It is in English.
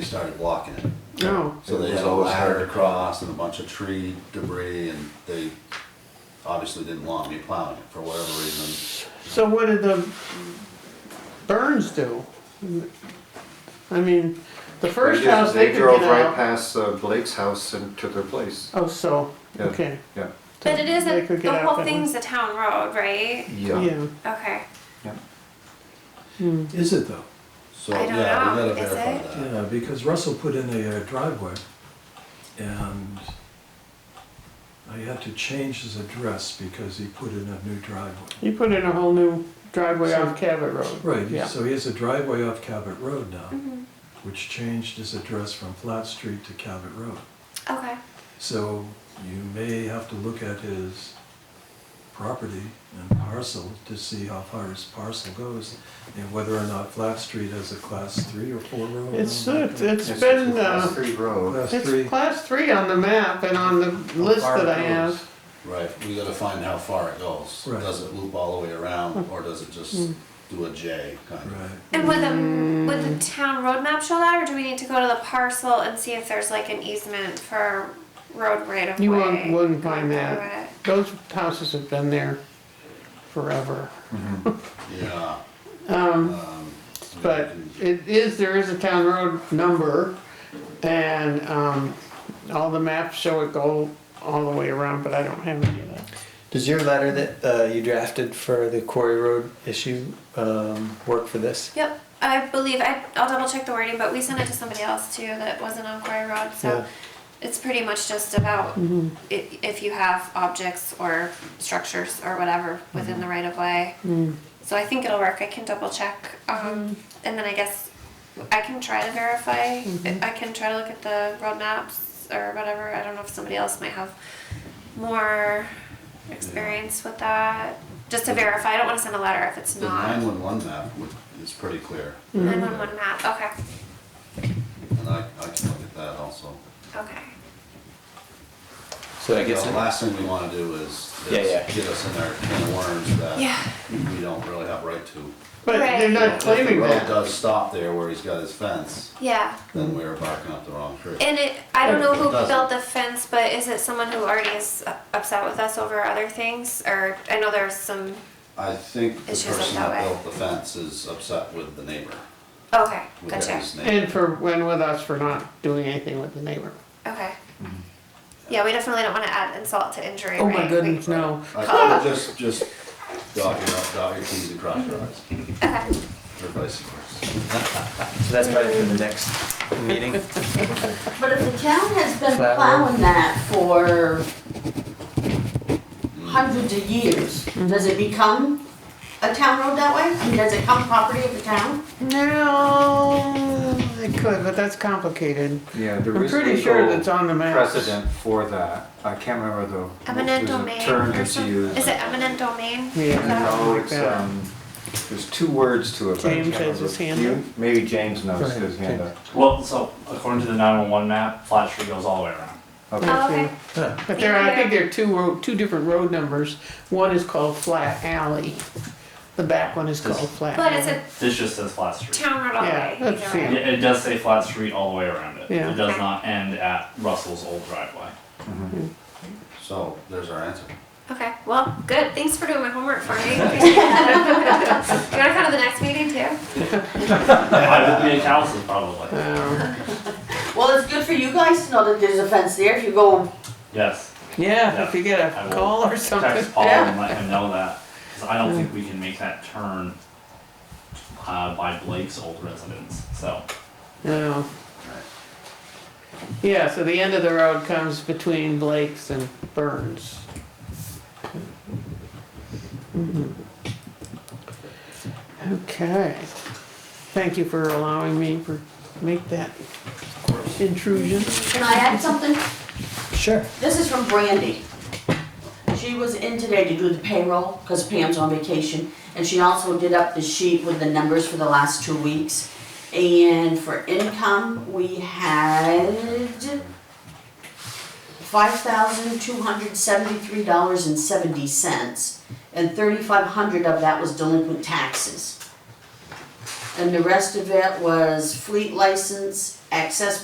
started blocking it. No. So they had a ladder across and a bunch of tree debris and they obviously didn't want me plowing it for whatever reason. So what did the Burns do? I mean, the first They just- house they could drove get right out. past uh, Blake's house and to their place. Oh, so, Yeah. okay. Yeah. So But it they could isn't, get the out whole that way. thing's a town road, right? Yeah, Okay. Is it though? So, I don't yeah, we know, gotta is it? verify that. Yeah, because Russell put in a uh, driveway and I had to change his address because he put in a new driveway. you put in a whole new driveway off Cabot Road. Yeah. Right, so he has a driveway off Cabot Road now, which changed his address from Flat Street to Cabot Road. Okay. So you may have to look at his property and parcel to see how far his parcel goes and whether or not Flat Street has a class three or four road. It's, I don't know. it's it's been, Class uh, three road. Class three. it's class three on the map and on the list far it that I goes. have. Right, we gotta find how far it goes. Right. Does it loop all the way around Hmm. or does it just do a J kind of? Right. And would the, would the Mm. town road map show that, or do we need to go to the parcel and see if there's like an easement for road right of way? You won't, wouldn't find Right that. away. Those houses have been there forever. Yeah. Um, But it is, there is a town road number, and, um, all the maps show it go all the way around, but I don't have any of that. Does your letter that uh, you drafted for the Quarry Road issue um, work for this? Yep, I believe, I, I'll double check the wording, but we sent it to somebody else too that wasn't on Quarry Road, so Yeah. it's pretty much just about i- if you have objects or structures or whatever within the right of way. So I think it'll work, I can double check, um, and then I guess I can try to verify, I can try to look at the road maps or whatever, I don't know if somebody else might have more experience with that, just to verify, I don't wanna send a letter if it's The not. nine-one-one map would- is pretty clear. Nine one one map, okay, And I, I can look at that also. okay. So I guess The it- last thing we wanna do is, Yeah, is yeah. get us in our can of worms Yeah. that we don't really have right to. But they're If not the claiming Road that. does stop there where he's got his fence, Yeah. then we're barking up the wrong tree. And it, I don't know who Does it? built the fence, but is it someone who already is u- upset with us over other things? Or I know there's some. I think the It's just person up that that way. built the fence is upset with the neighbor, Okay, with gotcha. his neighbor. And for, and with us for not doing anything with the neighbor. Okay. Mm-hmm. Yeah, we definitely don't want to add insult to injury. Oh right? my We- goodness, no. I think we'll just, just dog your, dog your T's and cross your I's, Okay. or vice versa. so that's probably for the next meeting. But if the town has been Flat plowing that for hundreds of years, does it become a town road that way? I mean, does it come property of the town? No, it could, but that's complicated. Yeah, there I'm is pretty sure that's legal on the map. precedent for that. I can't remember the, Eminent there's a domain. term or that's some- used. Is it eminent domain? Yeah. No, like it's, that. um, there's two words to it. but I James can't has his remember. hand You- Maybe James knows his hand up. Well, so according to the 911 map, Flat Street goes all the way around. Oh, okay. But there, I think there are two road, two different road numbers. One is called Flat Alley. The back one is called Flat But Alley. it's a This just says Flat Street. town road all the Yeah, way. that's either way. fair. It, it does say Flat Street all the way around it. Yeah. It does not end at Russell's old driveway. So, there's our answer. Okay. Well, good. Thanks for doing my homework for me. Appreciate that. you want to come to the next meeting too? I would be in houses probably. Um, Well, it's good for you guys to know that there's a fence there if you go, Yes. Yeah, if you get I a will call or something. Text Paul and let him know that. Because I don't think we can make that turn uh, by Blake's old residence. So, No. Yeah, so the end of the road comes between Blake's and Burns. Mhm. Okay. Thank you for allowing me for, make that intrusion. can I add something? Sure. This is from Brandy. She was in today to do the payroll, because Pam's on vacation, and she also did up the sheet with the numbers for the last two weeks. And for income, we had five thousand two hundred seventy-three dollars and seventy cents, and thirty-five hundred of that was delinquent taxes. And the rest of it was fleet license, access